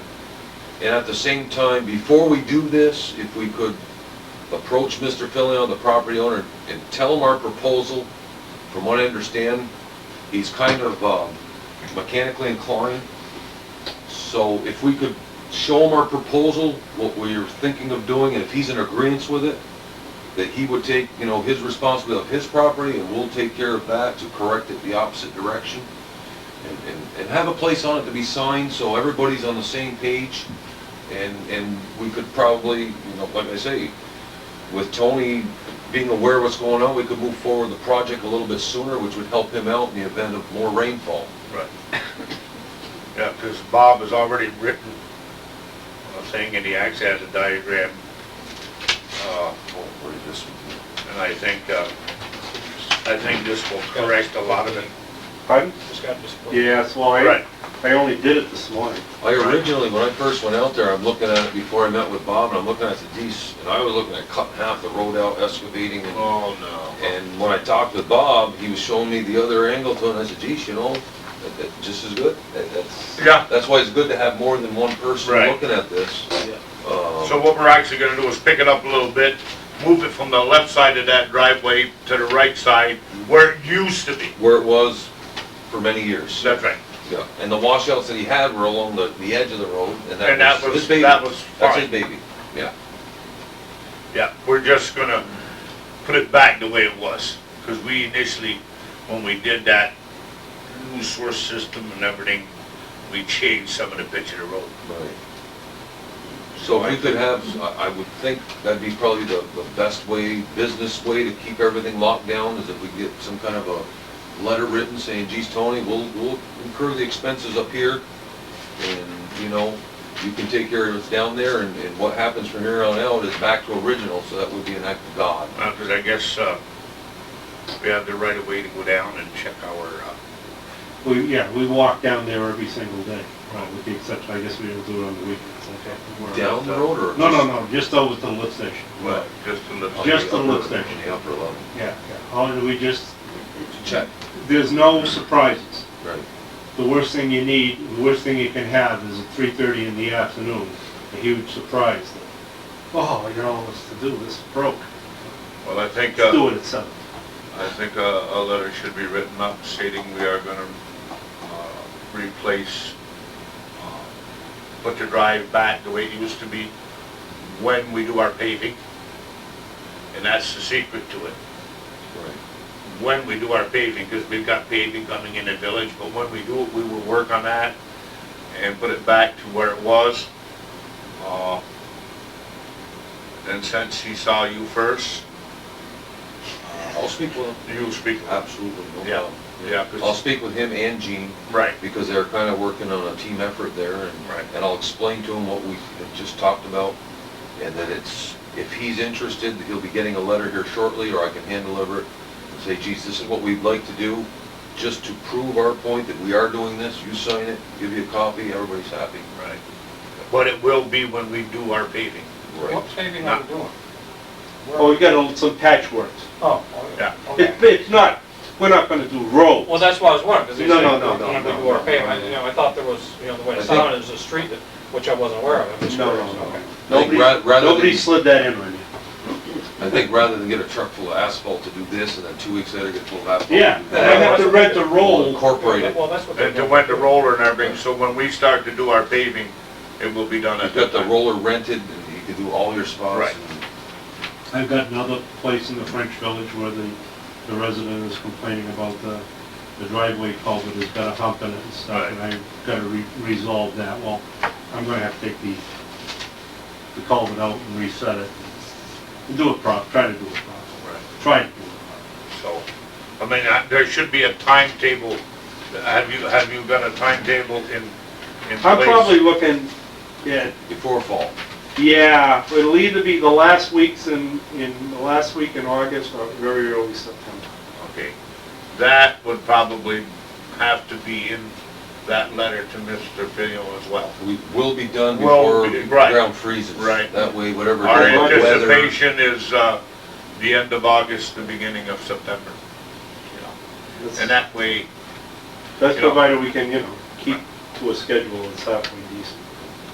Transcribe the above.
And at the same time, before we do this, if we could approach Mr. Filion, the property owner, and tell him our proposal. From what I understand, he's kind of uh, mechanically inclined. So if we could show him our proposal, what we are thinking of doing, and if he's in agreement with it, that he would take, you know, his responsibility of his property, and we'll take care of that to correct it the opposite direction. And, and- and have a place on it to be signed, so everybody's on the same page. And, and we could probably, you know, like I say, with Tony being aware of what's going on, we could move forward the project a little bit sooner, which would help him out in the event of more rainfall. Right. Yeah, because Bob has already written a thing and he actually has a diagram. Uh, Oh, where is this one? And I think, uh, I think this will correct a lot of it. Pardon? Just got this. Yeah, so I, Right. I only did it this morning. I originally, when I first went out there, I'm looking at it before I met with Bob, and I'm looking at the D's, and I was looking at cutting half the road out, excavating, and, Oh, no. and when I talked with Bob, he was showing me the other angle to it, and I said, geez, you know, that, that's just as good, that, that's. Yeah. That's why it's good to have more than one person Right. looking at this. Yeah. Um, So what we're actually gonna do is pick it up a little bit, move it from the left side of that driveway to the right side where it used to be. Where it was for many years. That's right. Yeah, and the washouts that he had were along the, the edge of the road, and And that that was was, his baby. that was That's his fine. baby, yeah. Yeah, we're just gonna put it back the way it was. Because we initially, when we did that new source system and everything, we changed some of the pitch of the road. So if we could have, I, I would think that'd be probably the, the best way, business way to keep everything locked down, is if we get some kind of a letter written saying, geez, Tony, we'll, we'll incur the expenses up here, and, you know, you can take care of it down there, and, and what happens from here on out is back to original, so that would be an act of God. Because I guess uh, we have the right of way to go down and check our, uh, We, yeah, we walk down there every single day, Right, with the exception, I guess we don't do it on the weekends. okay? Down the road, or? No, no, no, just over to the lift station. well, just a little. On Just the upper- lift station. on The upper level. Yeah, yeah. All we just, Check. there's no surprises. Right. The worst thing you need, the worst thing you can have is at three thirty in the afternoon, a huge surprise. that, Oh, you know, what's to do, this broke, Well, I think, let's do uh, it at seven. I think uh, a letter should be written up stating we are gonna uh, replace, uh, put the drive back the way it used to be when we do our paving. And that's the secret to it. Right. when we do our paving, because we've got paving coming in the village, but when we do it, we will work on that and put it back to where it was. Uh, And since he saw you first, I'll speak with him. you speak. Absolutely, no Yeah, problem. yeah, I'll 'cause- speak with him and Gene, right, because they're kind of working on a team effort there, and, Right. and I'll explain to him what we had just talked about, and that it's, if he's interested, he'll be getting a letter here shortly, or I can hand deliver it, and say, geez, this is what we'd like to do, just to prove our point that we are doing this, you sign it, give you a copy, everybody's happy. right. But it will be when we do our paving. Right. What paving are we doing? Oh, we got a little- some patchwork. Oh, Yeah. okay, okay. It- It's not, we're not gonna do roads. Well, that's why I was wondering, because they No, said, no, no, no, when we no, do our no, paving, no. you know, I thought there was, you know, the way I it think- sounded, it was a street that, which I wasn't aware of. I'm just No, no, curious. no. Okay. Nobody, Like, ra- rather nobody than- slid that in on you. I think rather than get a truck full of asphalt to do this, and then two weeks later get full of asphalt to do Yeah, that. they have to rent the we'll roll. Incorporate it. Well, that's what they And to do. wet the roller and everything, so when we start to do our paving, it will be done at You've that got the time. roller rented, and you can do all your spots. Right. I've got another place in the French Village where the, the resident is complaining about the, the driveway culvert has got a hump in it and stuff, and I've gotta re- resolve that, well, I'm gonna have to take the, the culvert out and reset it, and do it prop, try to do it properly, Right. try to do it So, I mean, I- there should be a timetable. Have you, have you got a timetable in, in place? properly. I'm probably looking, yeah, Before fall. yeah, it'll either be the last weeks in, in, the last week in August or very early September. Okay. That would probably have to be in that letter to Mr. Fino as well. We will be done Will before be, the right. ground freezes. Right. That way, whatever. Our type of weather- anticipation is, uh, the end of August, the beginning of September. you know. And that way, That's You know. provided we can, you know, keep to a schedule that's halfway decent.